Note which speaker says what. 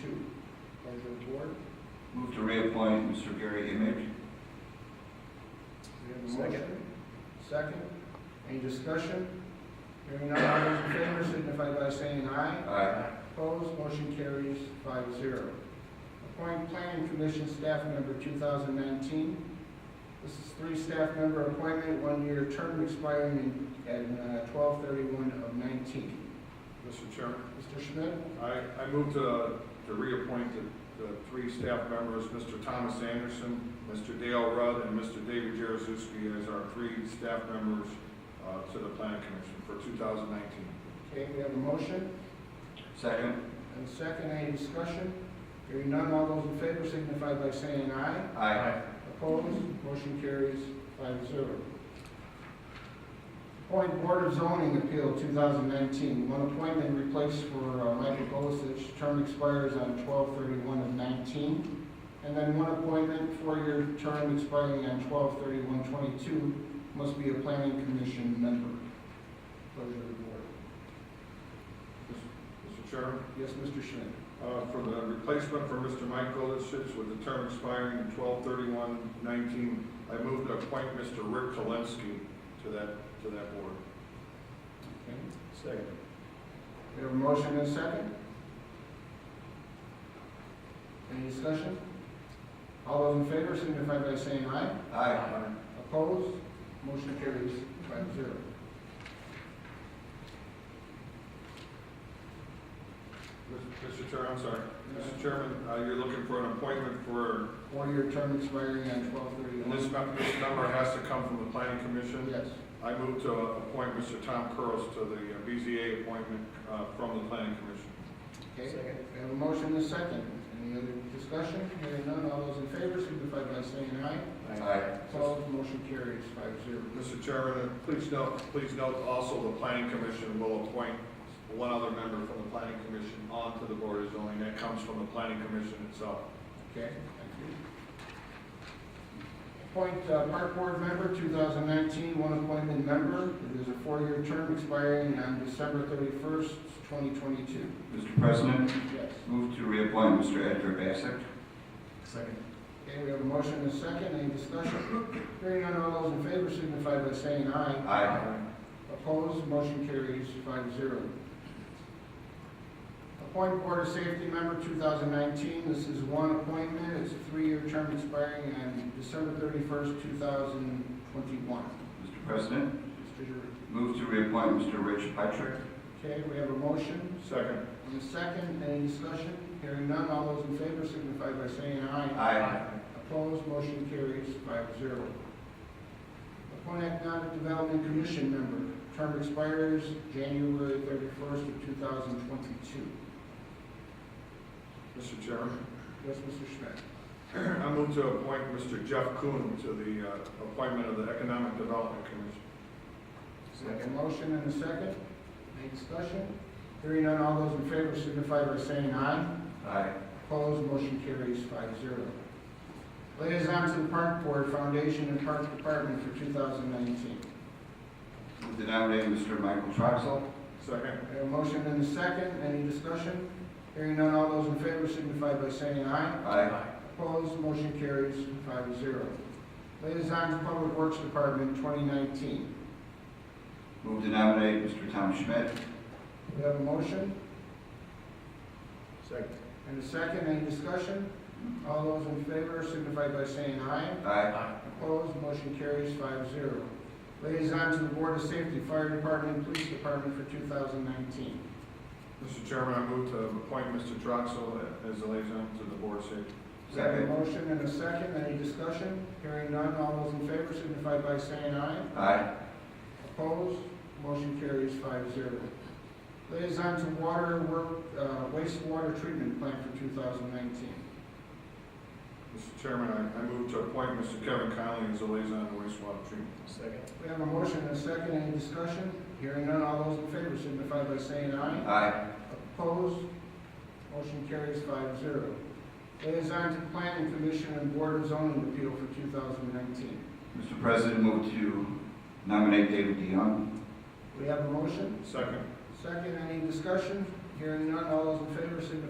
Speaker 1: two. Pleasure of the board.
Speaker 2: Move to reappoint Mr. Gary Image.
Speaker 1: We have a motion. Second. Any discussion? Hearing none, all those in favor signify by saying aye.
Speaker 2: Aye.
Speaker 1: Opposed, motion carries five zero. Appoint Planning Commission Staff Member 2019. This is three staff member appointment, one-year term expiring in- at 12/31 of 19.
Speaker 3: Mr. Chairman,
Speaker 1: Mr. Schmidt?
Speaker 3: I, I move to, to reappoint the, the three staff members, Mr. Thomas Anderson, Mr. Dale Rudd, and Mr. David Jaruzelski as our three staff members, uh, to the planning commission for two thousand nineteen.
Speaker 1: Okay, we have a motion.
Speaker 2: Second.
Speaker 1: And second, any discussion? Hearing none, all those in favor signify by saying aye.
Speaker 2: Aye.
Speaker 1: Opposed, motion carries five zero. Appoint Board of Zoning Appeal 2019, one appointment replaced for uh, Michael Bolasich, term expires on 12/31 of 19. And then one appointment, four-year term expiring on 12/31/22, must be a planning commission member. Pleasure of the board.
Speaker 3: Mr. Chairman,
Speaker 1: Yes, Mr. Schmidt?
Speaker 3: uh, for the replacement for Mr. Mike Golishitz with the term expiring in twelve thirty-one nineteen, I move to appoint Mr. Rick Kalinsky to that, to that board.
Speaker 1: Okay.
Speaker 3: Second.
Speaker 1: We have a motion and a second. Any discussion? All those in favor signify by saying aye.
Speaker 2: Aye.
Speaker 1: Opposed? Motion carries five zero.
Speaker 3: Mr. Chair, I'm sorry. Mr. Chairman, uh, you're looking for an appointment for,
Speaker 1: One-year term expiring on twelve
Speaker 3: and this
Speaker 1: thirty-one.
Speaker 3: num- this number has to come from the planning commission.
Speaker 1: Yes.
Speaker 3: I move to appoint Mr. Tom Curls to the uh, BZA appointment uh, from the planning commission.
Speaker 1: Okay. We have a motion and a second. Any other discussion? Hearing none, all those in favor signify by saying aye.
Speaker 2: Aye.
Speaker 1: Opposed? Motion carries five zero.
Speaker 3: Mr. Chairman, uh, please note, please note also the planning commission will appoint one other member from the planning commission onto the board of zoning. That comes from the planning commission itself.
Speaker 1: Okay, thank you. Appoint uh, Park Board Member, 2019, one appointment member. It is a four-year term expiring on December 31st, 2022.
Speaker 2: Mr. President,
Speaker 1: Yes.
Speaker 2: move to reappoint Mr. Edgar Bassett.
Speaker 3: Second.
Speaker 1: Okay, we have a motion and a second. Any discussion? Hearing none, all those in favor signify by saying aye.
Speaker 2: Aye.
Speaker 1: Opposed, motion carries five zero. Appoint Board of Safety Member 2019, this is one appointment, it's a three-year term expiring on December 31st, 2021.
Speaker 2: Mr. President,
Speaker 1: Mr. Giroux.
Speaker 2: move to reappoint Mr. Rich Patrick.
Speaker 1: Okay, we have a motion
Speaker 3: Second.
Speaker 1: and a second, any discussion? Hearing none, all those in favor signify by saying aye.
Speaker 2: Aye.
Speaker 1: Opposed, motion carries five zero. Appoint Economic Development Commission member, term expires January thirty-first of two thousand twenty-two.
Speaker 3: Mr. Chairman.
Speaker 1: Yes, Mr. Schmidt?
Speaker 3: I move to appoint Mr. Jeff Kuhn to the uh, appointment of the Economic Development Commission.
Speaker 1: We have a motion and a second, any discussion? Hearing none, all those in favor signify by saying aye.
Speaker 2: Aye.
Speaker 1: Opposed, motion carries five zero. Liaison to the Park Board Foundation and Park Department for 2019.
Speaker 2: Move to nominate Mr. Michael Troxel.
Speaker 3: Second.
Speaker 1: We have a motion and a second, any discussion? Hearing none, all those in favor signify by saying aye.
Speaker 2: Aye.
Speaker 1: Opposed, motion carries five zero. Liaison to Public Works Department 2019.
Speaker 2: Move to nominate Mr. Tom Schmidt.
Speaker 1: We have a motion
Speaker 3: Second.
Speaker 1: and a second, any discussion? All those in favor signify by saying aye.
Speaker 2: Aye.
Speaker 1: Opposed, motion carries five zero. Liaison to the Board of Safety, Fire Department, Police Department for 2019.
Speaker 3: Mr. Chairman, I move to appoint Mr. Troxel as the liaison to the Board of Safety.
Speaker 1: We have a
Speaker 2: Second.
Speaker 1: motion and a second, any discussion? Hearing none, all those in favor signify by saying aye.
Speaker 2: Aye.
Speaker 1: Opposed, motion carries five zero. Liaison to Water Work, uh, wastewater treatment plant for 2019.
Speaker 3: Mr. Chairman, I, I move to appoint Mr. Kevin Conley as the liaison to wastewater treatment.
Speaker 4: Second.
Speaker 1: We have a motion and a second, any discussion? Hearing none, all those in favor signify by saying aye.
Speaker 2: Aye.
Speaker 1: Opposed? Motion carries five zero. Liaison to Planning Commission and Board of Zoning Appeal for 2019.
Speaker 2: Mr. President, move to nominate David DeYoung.
Speaker 1: We have a motion,
Speaker 3: Second.
Speaker 1: second, any discussion? Hearing none, all those in favor signify